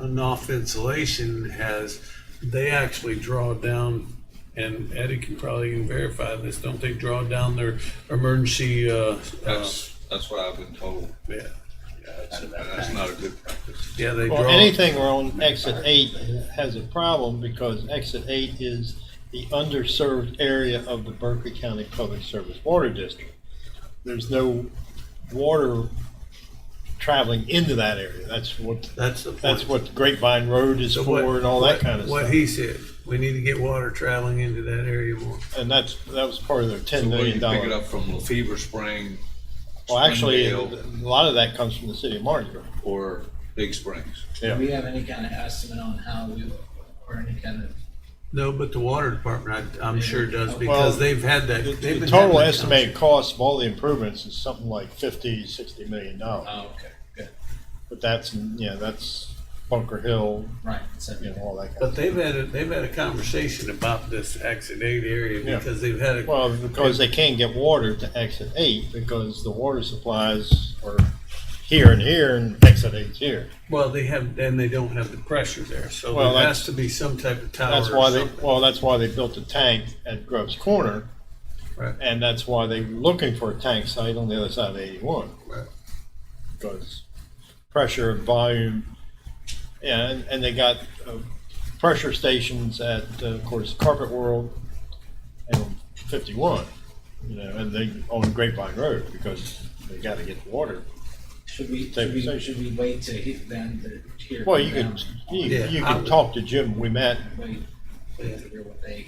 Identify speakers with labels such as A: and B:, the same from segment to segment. A: enough insulation has, they actually draw down, and Eddie can probably verify this, don't they draw down their emergency, uh, uh,
B: That's, that's what I've been told.
A: yeah,
B: That's, that's not a good practice.
A: yeah, they draw.
C: Well, anything on exit eight has a problem because exit eight is the underserved area of the Berkeley County Public Service Water District. There's no water traveling into that area. That's what,
A: That's the point.
C: that's what Grapevine Road is
A: So what-
C: for and all that kind of
A: what- What
C: stuff.
A: he said, we need to get water traveling into that area more.
C: And that's, that was part of their ten
B: So where do
C: million
B: you pick it
C: dollar.
B: up from Lefever Spring?
C: Well, actually, a
B: Springdale,
C: lot of that comes from the city of Martinsburg.
B: Or Big Springs?
C: Yeah.
D: Do we have any kind of estimate on how we, or any kind of,
A: No, but the water department, I, I'm sure does,
C: Well,
A: because they've had that.
C: The-
A: they've been
C: The
A: having
C: total
A: that
C: estimated cost of all the improvements is something like fifty, sixty million dollars.
D: oh, okay, good,
C: But that's, yeah, that's Bunker Hill,
D: right, so,
C: you know, all that kind
A: But
C: of.
A: they've had, a- they've had a conversation about this exit eight area
C: Yeah.
A: because they've had a,
C: Well, because they can't get water to exit eight because the water supplies are here and here and exit eight's here.
A: well, they have, and they don't have the pressure there. So
C: Well,
A: there
C: that's-
A: has to be some type of tower
C: That's why
A: or
C: they,
A: something.
C: well, that's why they built a tank at Grove's Corner.
A: Right.
C: And that's why they were looking for a tank site on the other side of eighty-one.
A: Right.
C: Because pressure and volume, yeah, and, and they got uh, pressure stations at, uh, of course, Carpet World and on fifty-one, you know, and they on Grapevine Road because they gotta get water.
D: should we,
C: Take
D: should we,
C: position.
D: should we wait to hit them to hear?
C: Well, you
D: from
C: could, you,
A: Yeah,
C: you
A: I
C: could
A: would-
C: talk to Jim, we met,
D: them? Wait, wait to hear what they,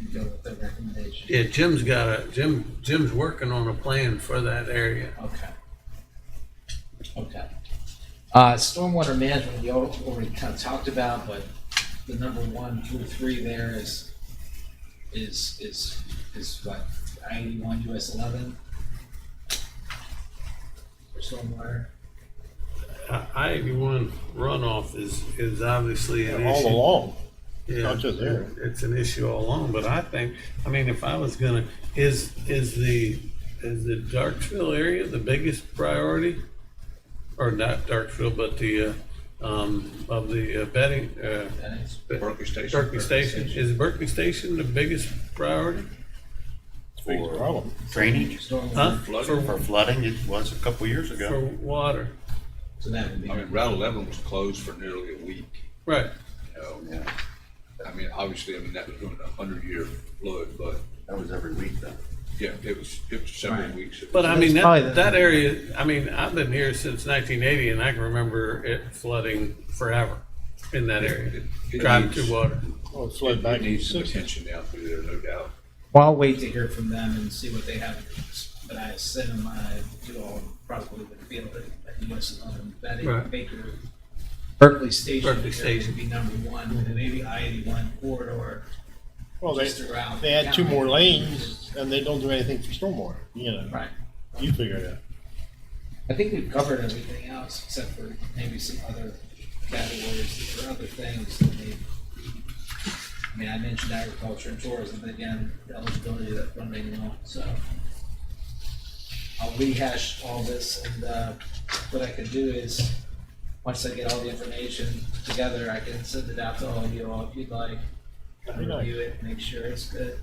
D: and go with their recommendation?
A: Yeah, Jim's got a, Jim, Jim's working on a plan for that area.
D: Okay. Okay. Uh, stormwater management, you all already kind of talked about, but the number one through three there is, is, is, is what, eighty-one US eleven? For stormwater,
A: I eighty-one runoff is, is obviously an
C: all
A: issue.
C: along.
A: Yeah,
C: not just there.
A: It's an issue all along, but I think, I mean, if I was gonna, is, is the, is the Darksville area the biggest priority? Or not Darksville, but the, uh, um, of the uh, betting, uh,
D: that is,
B: Berkeley Station?
A: Berkeley Station, is Berkeley Station the biggest priority?
C: Big problem.
E: Drainage
A: Huh?
D: stormwater,
A: For-
E: flooding, for flooding, it was a couple years
A: For
E: ago.
A: water,
D: so that would be.
B: I mean, Route eleven was closed for nearly a week,
A: right,
B: you
A: Oh,
B: know? I mean, obviously, I mean, that was during a hundred-year flood, but,
E: That was every week though.
B: yeah, it was, it was several
D: Right.
B: weeks. It
A: but
B: was-
A: I mean,
D: probably
A: that,
D: the-
A: that area, I mean, I've been here since nineteen eighty and I can remember it flooding forever in that area,
B: It- it
A: driving
B: needs-
A: through water.
C: Well, it
B: It
C: flowed back
B: it
C: in
B: needs some
C: sixty.
B: attention down through there, no doubt.
D: Well, I'll wait to hear from them and see what they have, but I assume I do all probably would feel that that US eleven, that
A: Right.
D: it Baker, Berkeley Station.
A: Berkeley
D: area
A: Station.
D: Would be number one, and maybe I eighty-one corridor,
C: Well, they,
D: just around.
C: they had two
D: county.
C: more lanes and they don't do anything for stormwater, you know,
D: Right,
C: you figure it out.
D: I think we've covered everything else except for maybe some other categories or other things that they. I mean, I mentioned agriculture and tourism, but again, the eligibility of that funding and all, so. I'll rehash all this and, uh, what I can do is, once I get all the information together, I can send it out to all of you all if you'd like.
C: That'd be nice.
D: Review it, make sure it's good.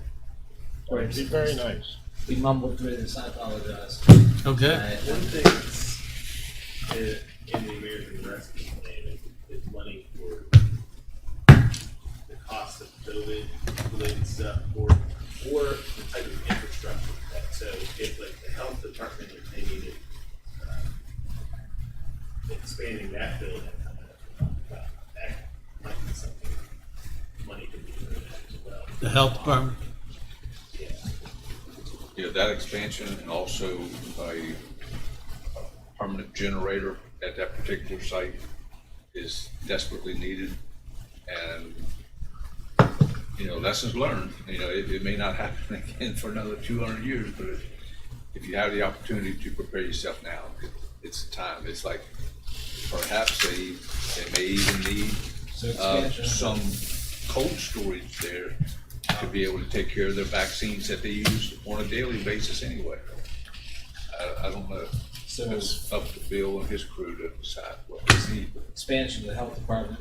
D: Or
C: It'd be very nice.
D: We mumbled through this, I apologize.
A: Okay.
D: I-
F: One thing that's uh, in the American Rescue Plan is, is money for the cost of COVID related stuff or, or the type of infrastructure. that- So if like the health department, if they needed, uh, expanding that building, uh, that might be something money could be put in as well.
A: The health department?
F: Yeah.
B: Yeah, that expansion and also a permanent generator at that particular site is desperately needed. And, you know, lessons learned, you know, it, it may not happen again for another two hundred years, but if, if you have the opportunity to prepare yourself now, it- it's time. It's like perhaps they, they may even need
D: So
B: uh,
D: expansion.
B: some cold storage there to be able to take care of their vaccines that they use on a daily basis anyway. I, I don't know.
D: So
B: It's up to Bill and his crew to decide what they need.
D: expansion of the health department